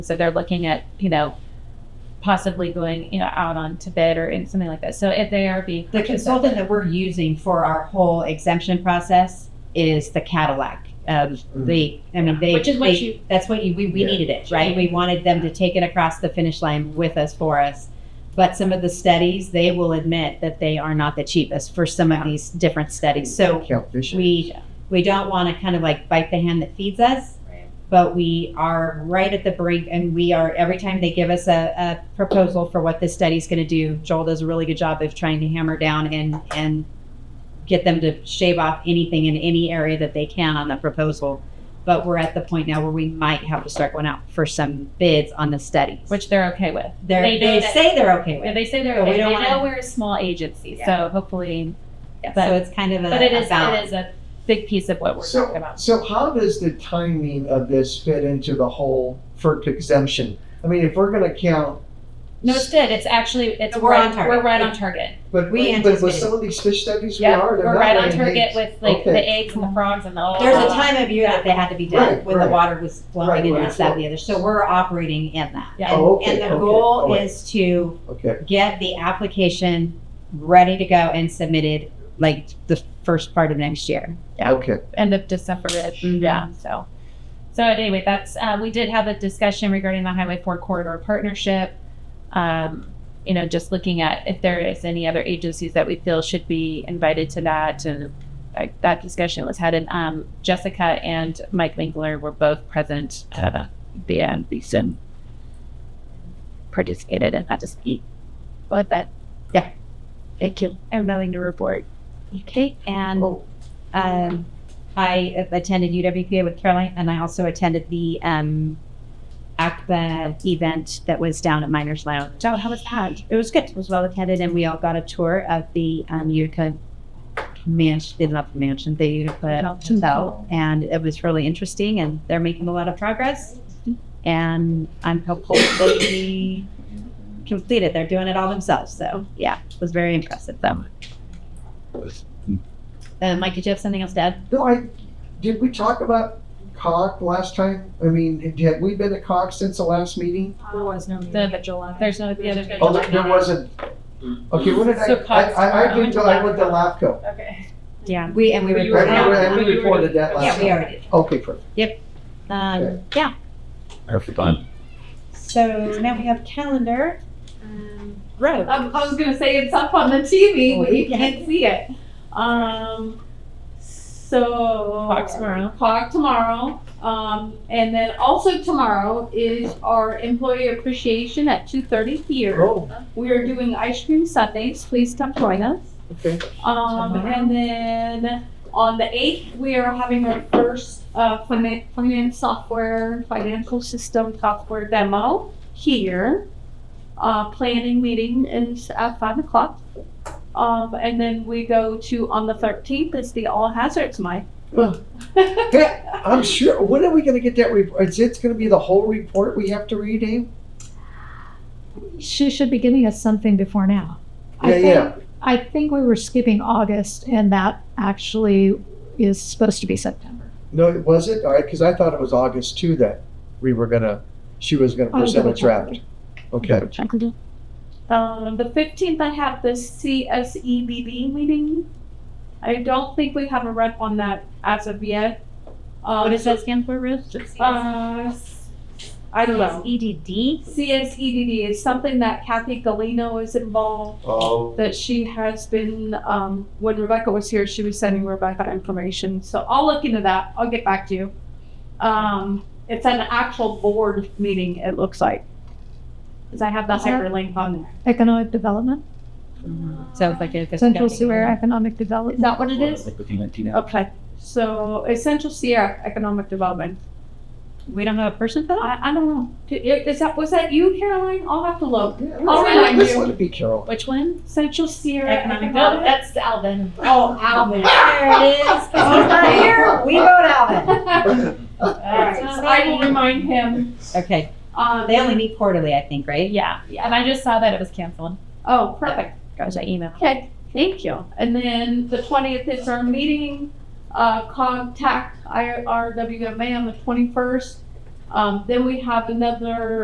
So they're looking at, you know, possibly going, you know, out on Tibet or in something like that. So if they are being The purchased- consultant that we're using for our whole exemption process is the Cadillac. Um, the, I mean, they, Which is what they- you- that's what you, we, we Hmm. Yeah. needed it, right? We wanted them to take it across the finish line with us for us. But some of the studies, they will admit that they are not the cheapest for some of these different studies. So Catfish. we, we don't want to kind of like bite the hand that feeds us. But we are right at the brink, and we are every time they give us a, a proposal for what this study's going to do. Joel does a really good job of trying to hammer down and and get them to shave off anything in any area that they can on the proposal. But we're at the point now where we might have to start going out for some bids on the studies, which they're okay with. They're, they they know that- say they're okay with. They say they're But we okay. They don't know wanna- we're a small agency, Yeah. so hopefully, but- so it's kind of a, but it is, a it balance. is a big piece of what we're talking So, about. so how does the timing of this fit into the whole FERC exemption? I mean, if we're gonna count, No, it's good. It's actually, it's, We're right- on target. We're right on target. but, We but with anticipated. some of these fish studies, we Yeah, are, they're We're not right on laying target eggs. with like the Okay. eggs and the frogs and the. There's a time of year that they had to be done Oh. Right, when right. the water was flowing Right, and right, this, that, and right. the other. So we're operating in that. Yeah. And, Oh, okay, and the okay, goal all right. is to Okay, get the application ready to go and submitted like the first part of next year. Yeah. okay. end of December. It, Mhm. Yeah. So, so anyway, that's uh, we did have a discussion regarding the Highway Four corridor partnership. Um, you know, just looking at if there is any other agencies that we feel should be invited to that, and like, that discussion was had. And um, Jessica and Mike Winkler were both present at uh, the end. Beeson participated in that dispute. But that, yeah. Thank you. I have nothing to report. Okay. And um, I attended UWPA with Caroline and I also attended the um, ACPA event that was down at Miners Lounge. So how was that? It was good. It was well attended and we all got a tour of the um, Utica mansion, they love the mansion, the Utica Mountain hotel. And it was really interesting and they're making a lot of progress. And I'm hopeful that we complete it. They're doing it all themselves. So yeah, it was very impressive though. Uh, Mike, did you have something else to add? No, I, did we talk about COG last time? I mean, have we been at COG since the last meeting? There was no meeting. The July. There's no the other. Oh, there- there wasn't, okay, what did I, So I, COG's I, I tomorrow. did, I went to LAFCO. Okay. Yeah, we, and we I, I- I reported. reported that last Yeah, we time. already did. Okay, perfect. Um, yeah, Have fun. so now we have calendar. Um, Row. I, I was gonna say it's up on the TV, Oh, but you yeah. can't see it. Um, so Talk tomorrow. Talk tomorrow. Um, and then also tomorrow is our employee appreciation at two thirty here. Oh, We are doing ice cream sundaes. Please come join us. okay. Um, and then on the eighth, we are having our first uh, finance, finance software, financial system software demo here. Uh, planning meeting is at five o'clock. Um, and then we go to on the thirteenth is the all hazards mic. Huh. Hey, I'm sure, when are we gonna get that report? Is it gonna be the whole report we have to read, Abe? She should be giving us something before now. Yeah, I think, yeah. I think we were skipping August, and that actually is supposed to be September. No, it wasn't? All right, because I thought it was August too that we were gonna, she was gonna I'll present a double check. draft. Okay. Um, the fifteenth, I have the CSEBB meeting. I don't think we have a rep on that as of yet. Um, What does that stand for, Ruth? Uh, I don't Um, know. E EDD? CSEDD is something that Kathy Galino is involved, Oh, that she has been, um, when Rebecca was here, she was sending Rebecca information. So I'll look into that. I'll get back to you. Um, it's an actual board meeting, it looks like. Because I have the Is that- hyperlink on there. Economic development, Sounds like a. Central Sewer Economic Is Development. that what it is? Okay. So Essential Sierra Economic Development. We don't have a person for that? I, I don't know. Is that, was that you, Caroline? I'll have to look. I'll yeah, remind just you. let it be Carol. Which one? Central Sierra Economic No, Development. that's Alvin. Oh, Alvin. There it is. 'Cause he's not here. We vote Alvin. Alright, so I will remind him. Okay, Um, they only meet quarterly, I think, right? Yeah, and I just saw that it was canceled. Oh, perfect. Gosh, I emailed. Okay, thank you. And then the twentieth is our meeting, uh, contact IRWMA on the twenty-first. Um, then we have another